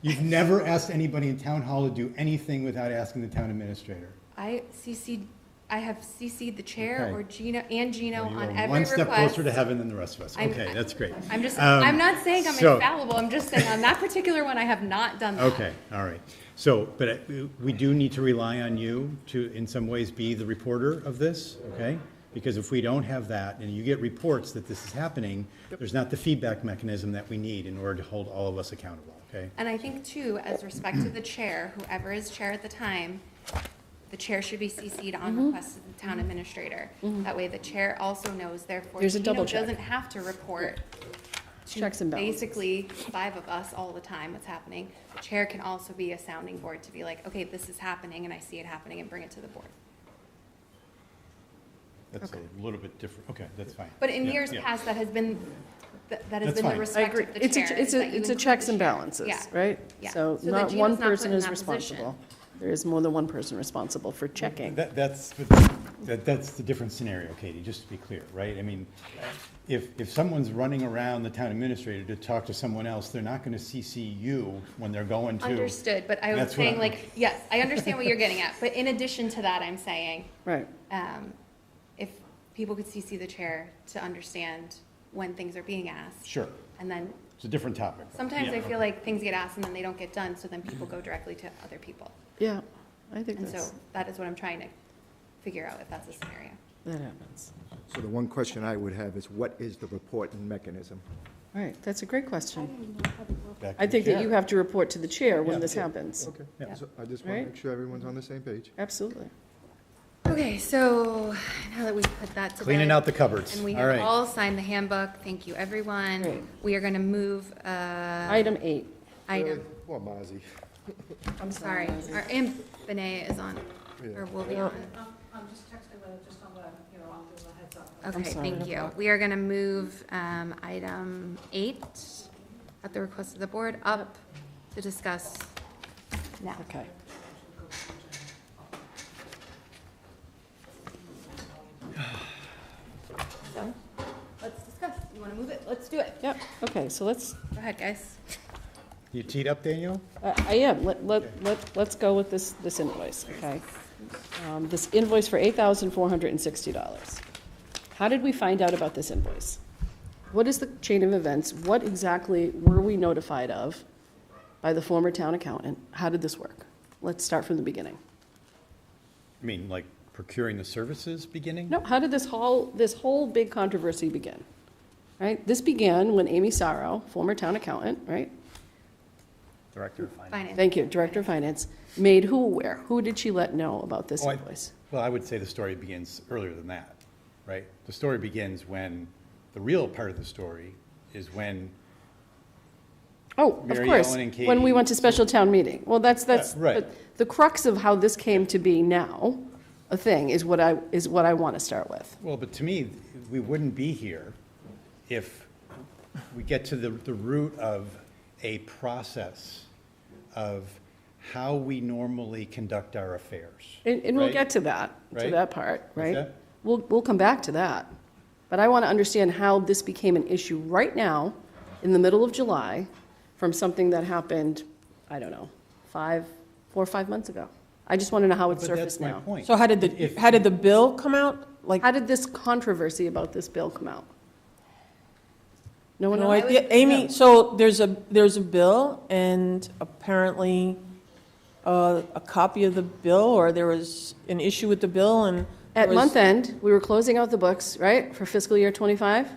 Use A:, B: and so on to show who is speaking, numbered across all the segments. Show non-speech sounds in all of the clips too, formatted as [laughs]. A: You've never asked anybody in town hall to do anything without asking the town administrator.
B: I CC'd, I have CC'd the chair
A: Okay.
B: or Gino, and Gino
A: You
B: on
A: are
B: every request.
A: One step closer to heaven than the rest of us.
B: I'm-
A: Okay, that's great.
B: I'm just,
A: Um,
B: I'm not saying I'm
A: so-
B: infallible, I'm just saying on that particular one, I have not done that.
A: Okay, all right. So, but uh, we do need to rely on you to, in some ways, be the reporter of this, okay? Because if we don't have that, and you get reports that this is happening, there's not the feedback mechanism that we need in order to hold all of us accountable, okay?
B: And I think too, as respect to the chair, whoever is chair at the time, the chair should be CC'd
C: Mm-hmm.
B: on request of the town administrator. That way the chair also knows, therefore
C: There's a double
B: Gino
C: check.
B: doesn't have to report to
C: Checks and balances.
B: Basically, five of us all the time, what's happening. The chair can also be a sounding board to be like, okay, this is happening and I see it happening and bring it to the board.
A: That's a little bit different, okay, that's fine.
B: But in
A: Yeah,
B: years
A: yeah.
B: past, that has been, that that has
A: That's
B: been the
A: fine. I
C: I
B: respect
C: agree.
B: of the
C: It's
B: chair.
C: a, it's
B: is that
C: a,
B: you
C: it's a
B: include
C: checks
B: the
C: and
B: chair.
C: balances,
B: Yeah.
C: right?
B: Yeah.
C: So
B: So that
C: not
B: Gino's
C: one
B: not put
C: person
B: in
C: is
B: that position.
C: responsible. There is more than one person responsible for checking.
A: That, that's, that, that's the different scenario, Katie, just to be clear, right? I mean, if, if someone's running around the town administrator to talk to someone else, they're not gonna CC you when they're going to.
B: Understood, but I was
A: That's what
B: saying
A: I'm-
B: like, yes, I understand what you're getting
A: [laughs]
B: at, but in addition to that, I'm saying,
C: Right.
B: um, if people could CC the chair to understand when things are being asked.
A: Sure,
B: And then
A: it's a different topic.
B: sometimes
A: Yeah.
B: I feel like things get asked and then they don't get done, so then people go directly to other people.
C: Yeah, I think
B: And so
C: that's,
B: that is what I'm trying to figure out if that's a scenario.
C: that happens.
D: So the one question I would have is what is the reporting mechanism?
C: All right, that's a great question.
A: Back to
C: I
A: the
C: think that
A: chair.
C: you have to report to the chair when
A: Yeah.
C: this happens.
D: Okay,
A: Yeah.
D: so I just want to
C: Right.
D: make sure everyone's on the same page.
C: Absolutely.
B: Okay, so now that we've put that to
A: Cleaning
B: bed,
A: out the cupboards,
B: And we
A: all
B: have
A: right.
B: all signed the handbook, thank you,
C: Great.
B: everyone. We are gonna move, uh,
C: Item eight.
B: item
D: Well, Mozzie.
C: I'm
B: Sorry, our imp Benay is on, or will be
C: Yeah.
B: on.
E: I'm, I'm just texting with, just on the, you know, I'll give a heads up.
B: Okay,
C: sorry.
B: thank you. We are gonna move, um, item eight, at the request of the board, up to discuss now.
C: Okay.
B: So, let's discuss. You wanna move it? Let's do it.
C: Yep, okay, so let's,
B: Go ahead, guys.
A: You teed up, Daniel?
C: I I am, Uh, let, let, let- let's go with this, this invoice, okay? Um, This invoice for $8,460. How did we find out about this invoice? What is the chain of events? What exactly were we notified of by the former town accountant? How did this work? Let's start from the beginning.
A: I mean, like procuring the services beginning?
C: No, how did this whole, this whole big controversy begin? Right? This began when Amy Sorrow, former town accountant, right?
A: Director of Finance.
B: Finance.
C: Thank you, Director of Finance, made who aware? Who did she let know about this
A: Oh, I-
C: invoice?
A: Well, I would say the story begins earlier than that, right? The story begins when, the real part of the story is when,
C: Oh, of
A: Mary
C: course,
A: Ellen and
C: when we
A: Katie.
C: went to special town meeting. Well, that's, that's,
A: Yeah, right.
C: but the crux of how this came to be now, a thing, is what I, is what I want to start with.
A: well, but to me, we wouldn't be here if we get to the, the root of a process of how we normally conduct our affairs.
C: And, and we'll
A: Right.
C: get to that, to
A: Right.
C: that part, right?
A: that?
C: We'll, we'll come back to that. But I want to understand how this became an issue right now, in the middle of July, from something that happened, I don't know, five, four or five months ago. I just want to know how it
A: But that's
C: surfaced
A: my
C: now.
A: point.
F: So how did
A: If-
F: the, how did the bill come out? Like,
C: How did this controversy about this bill come out? No one
F: no
C: knows?
F: idea, Amy, so there's a, there's a bill, and apparently, uh, a copy of the bill, or there was an issue with the bill, and. there
C: At
F: was-
C: month end, we were closing out the books, right, for fiscal year '25,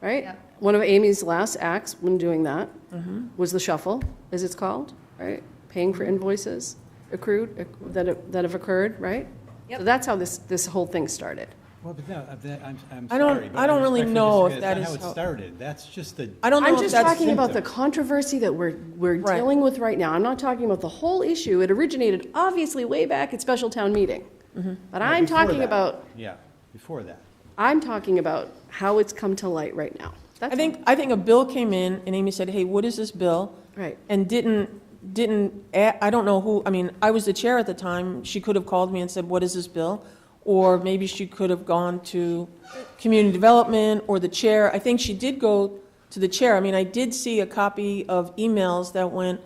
C: right?
B: Yep.
C: One of Amy's last acts when doing that
F: Mm-hmm.
C: was the shuffle, as it's called, right? Paying for invoices accrued, acc- that have- that have occurred, right? So
B: Yep.
C: that's how this, this whole thing started.
A: Well, but no, uh, that- I'm, I'm
F: I don't-
A: sorry, but
F: I don't really
A: respectfully
F: know
A: disagree.
F: if
A: That's not
F: that is
A: How it
F: how-
A: started, that's just the.
F: I don't know
C: I'm
F: if
C: just
F: that's-
C: talking about the controversy that we're, we're
F: Right.
C: dealing with right now. I'm not talking about the whole issue. It originated obviously way back at special town meeting.
F: Mm-hmm.
C: But
A: No,
C: I'm
A: before
C: talking
A: that.
C: about,
A: Yeah, before that.
C: I'm talking about how it's come to light right now.
F: I
C: That's
F: think, I think a bill came in, and Amy said, hey, what is this bill?
C: Right.
F: And didn't, didn't, a- I don't know who, I mean, I was the chair at the time, she could have called me and said, what is this bill? Or maybe she could have gone to community development or the chair, I think she did go to the chair, I mean, I did see a copy of emails that went